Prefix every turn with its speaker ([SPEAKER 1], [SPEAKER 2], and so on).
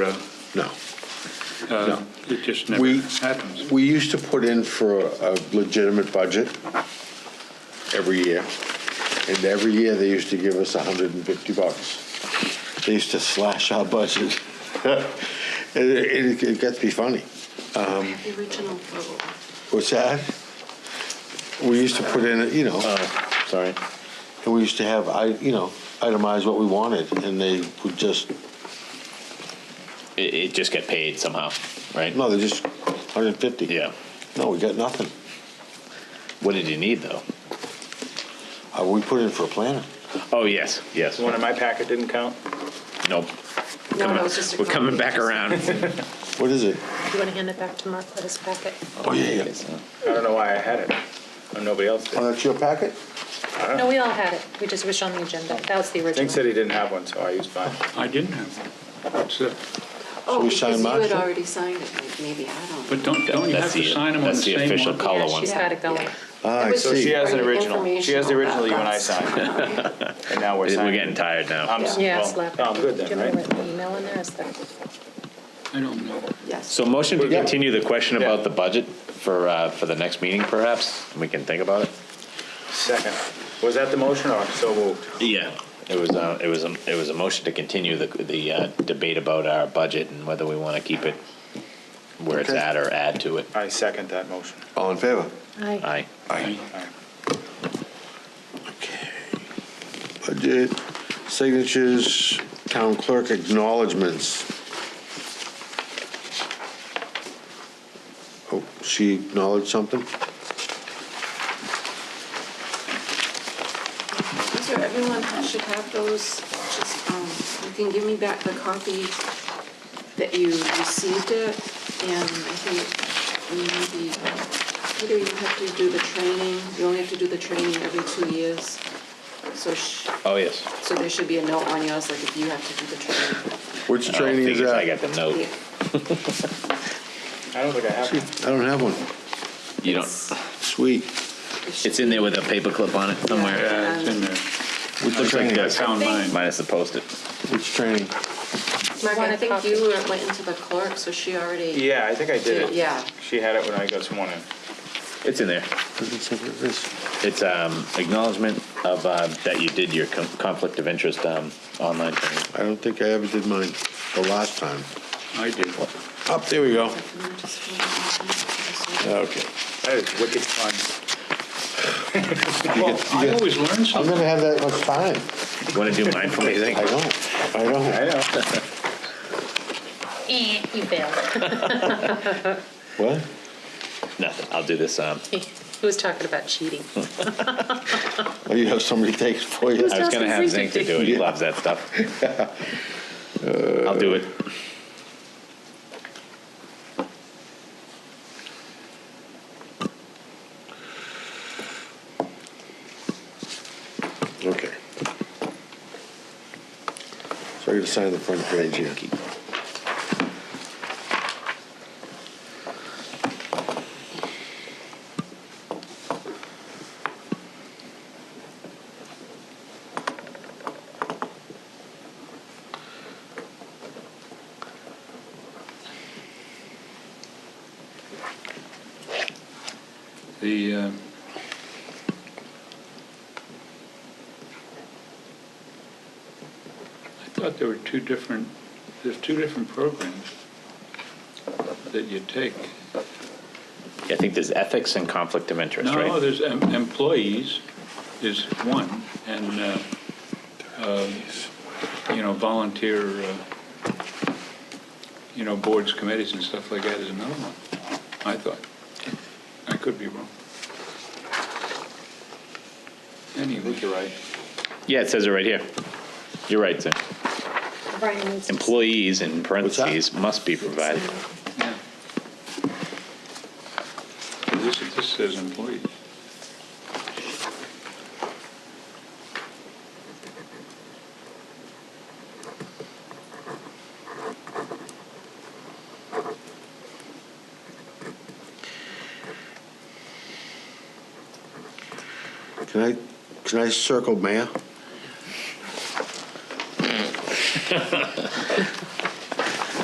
[SPEAKER 1] road.
[SPEAKER 2] No.
[SPEAKER 1] Uh,
[SPEAKER 2] No.
[SPEAKER 1] It just never
[SPEAKER 2] We-
[SPEAKER 1] happens.
[SPEAKER 2] We used to put in for a legitimate budget every year. And every year, they used to give us 150 bucks. They used to slash our budget. And It it got to be funny.
[SPEAKER 3] The original rule.
[SPEAKER 2] What's that? We used to put in, you know,
[SPEAKER 4] Uh, Sorry.
[SPEAKER 2] and we used to have, I, you know, itemize what we wanted, and they would just,
[SPEAKER 4] It, it just get paid somehow, right?
[SPEAKER 2] no, they just 150.
[SPEAKER 4] Yeah.
[SPEAKER 2] No, we got nothing.
[SPEAKER 4] What did you need though?
[SPEAKER 2] Uh, We put in for a planner.
[SPEAKER 4] Oh yes, yes.
[SPEAKER 5] The one in my packet didn't count?
[SPEAKER 4] Nope.
[SPEAKER 3] No, no, it's just a.
[SPEAKER 4] We're coming
[SPEAKER 3] copy.
[SPEAKER 4] back around.
[SPEAKER 2] What is it?
[SPEAKER 3] You want to hand it back to Mark, let us pack it?
[SPEAKER 2] Oh, yeah, yeah.
[SPEAKER 5] I don't know why I had it, or nobody else did.
[SPEAKER 2] Oh, that's your packet?
[SPEAKER 3] No, we all had it, we just wish on the agenda, that was the original.
[SPEAKER 5] Nick said he didn't have one, so I used mine.
[SPEAKER 1] I didn't have one. uh, What's that?
[SPEAKER 2] So
[SPEAKER 6] Oh,
[SPEAKER 2] we
[SPEAKER 6] because
[SPEAKER 2] sign
[SPEAKER 6] you had
[SPEAKER 2] Marshall?
[SPEAKER 6] already signed it, like, maybe, I don't know.
[SPEAKER 1] But don't, don't you have
[SPEAKER 4] That's
[SPEAKER 1] to
[SPEAKER 4] the-
[SPEAKER 1] sign them on the
[SPEAKER 4] that's the
[SPEAKER 1] same one?
[SPEAKER 4] official col- Color
[SPEAKER 3] Yeah,
[SPEAKER 4] one.
[SPEAKER 3] she's got it going.
[SPEAKER 2] Ah,
[SPEAKER 6] Yeah.
[SPEAKER 2] I
[SPEAKER 6] It was
[SPEAKER 5] So she
[SPEAKER 2] see.
[SPEAKER 5] has an
[SPEAKER 6] Right,
[SPEAKER 5] original, she has the
[SPEAKER 6] informational
[SPEAKER 5] original you and I
[SPEAKER 6] about
[SPEAKER 5] signed, and now we're signing.
[SPEAKER 4] We're getting tired now.
[SPEAKER 5] I'm, s-
[SPEAKER 3] Yeah, slap
[SPEAKER 5] well,
[SPEAKER 3] it.
[SPEAKER 5] no, I'm good
[SPEAKER 3] Do
[SPEAKER 5] then,
[SPEAKER 3] you want me
[SPEAKER 5] right?
[SPEAKER 3] to write the email in there, is that?
[SPEAKER 1] I don't know.
[SPEAKER 6] Yes.
[SPEAKER 4] So motion to
[SPEAKER 2] Yeah.
[SPEAKER 4] continue the question
[SPEAKER 5] Yeah.
[SPEAKER 4] about the budget for, uh, for the next meeting perhaps? and We can think about it?
[SPEAKER 5] Second, was that the motion or so moved?
[SPEAKER 4] Yeah. It was, uh, it was, a- it was a motion to continue the, the uh, debate about our budget and whether we want to keep it where it's
[SPEAKER 2] Okay.
[SPEAKER 4] at or add to it.
[SPEAKER 5] I second that motion.
[SPEAKER 2] All in favor?
[SPEAKER 3] Aye.
[SPEAKER 4] Aye.
[SPEAKER 5] All right.
[SPEAKER 2] Budget, signatures, town clerk acknowledgements. Oh, she acknowledged something?
[SPEAKER 6] These are, everyone should have those, just, um, you can give me back the copy that you received it, and I think maybe, Peter, you have to do the training, you only have to do the training every two years, so sh-
[SPEAKER 4] Oh, yes.
[SPEAKER 6] so there should be a note on yours, like if you have to do the training.
[SPEAKER 2] Which
[SPEAKER 4] Oh,
[SPEAKER 2] training is
[SPEAKER 4] figures
[SPEAKER 2] that?
[SPEAKER 4] I got the note.
[SPEAKER 6] Yeah.
[SPEAKER 5] I don't think I have one.
[SPEAKER 2] I don't have one.
[SPEAKER 4] You
[SPEAKER 6] It's-
[SPEAKER 4] don't,
[SPEAKER 2] Sweet.
[SPEAKER 6] it should
[SPEAKER 4] it's in there with a paperclip on it somewhere.
[SPEAKER 1] Yeah, it's in there.
[SPEAKER 2] Which training?
[SPEAKER 1] I found mine.
[SPEAKER 4] Minus the post-it.
[SPEAKER 2] Which training?
[SPEAKER 6] Mark,
[SPEAKER 3] Want
[SPEAKER 6] I
[SPEAKER 3] a
[SPEAKER 6] think
[SPEAKER 3] copy?
[SPEAKER 6] you were- went into the clerk, so she already.
[SPEAKER 5] Yeah, I think I did it.
[SPEAKER 6] Yeah.
[SPEAKER 5] She had it when I got sworn in.
[SPEAKER 4] It's in there.
[SPEAKER 2] Doesn't say what it is.
[SPEAKER 4] It's um, acknowledgement of, uh, that you did your con- conflict of interest um, online training.
[SPEAKER 2] I don't think I ever did mine the last time.
[SPEAKER 1] I did.
[SPEAKER 2] Up, there we go.
[SPEAKER 6] Yeah.
[SPEAKER 2] Okay.
[SPEAKER 5] That is wicked fun.
[SPEAKER 1] Well, I always learn
[SPEAKER 2] I'm
[SPEAKER 1] something.
[SPEAKER 2] gonna have that much time.
[SPEAKER 4] Want to do mine for me, you
[SPEAKER 2] I
[SPEAKER 4] think?
[SPEAKER 2] don't, I don't.
[SPEAKER 5] I know.
[SPEAKER 3] Eh, You failed.
[SPEAKER 2] What?
[SPEAKER 4] Nothing, I'll do this. um,
[SPEAKER 3] He was talking about cheating.
[SPEAKER 5] Hmm.
[SPEAKER 2] Oh, you have somebody take it for you?
[SPEAKER 3] Who's
[SPEAKER 4] I was going to have
[SPEAKER 3] Justin's
[SPEAKER 4] Zink to do it, he loves that stuff. I'll do it.
[SPEAKER 2] Okay. So I gotta sign the front page here.
[SPEAKER 1] The, uh, I thought there were two different, there's two different programs that you take.
[SPEAKER 4] I think there's ethics and conflict of interest,
[SPEAKER 1] No,
[SPEAKER 4] right?
[SPEAKER 1] there's em- employees is one, and, uh, um, you know, volunteer, uh, you know, boards, committees and stuff like that is another one, I thought. I could be wrong.
[SPEAKER 5] I think
[SPEAKER 1] Anyway,
[SPEAKER 5] you're right.
[SPEAKER 4] Yeah, it says it right here. You're right, Zink.
[SPEAKER 3] Brian needs to-
[SPEAKER 4] Employees in
[SPEAKER 2] that?
[SPEAKER 4] parentheses must be provided.
[SPEAKER 1] yeah. This, this says employees.
[SPEAKER 2] Can I, can I circle mayor?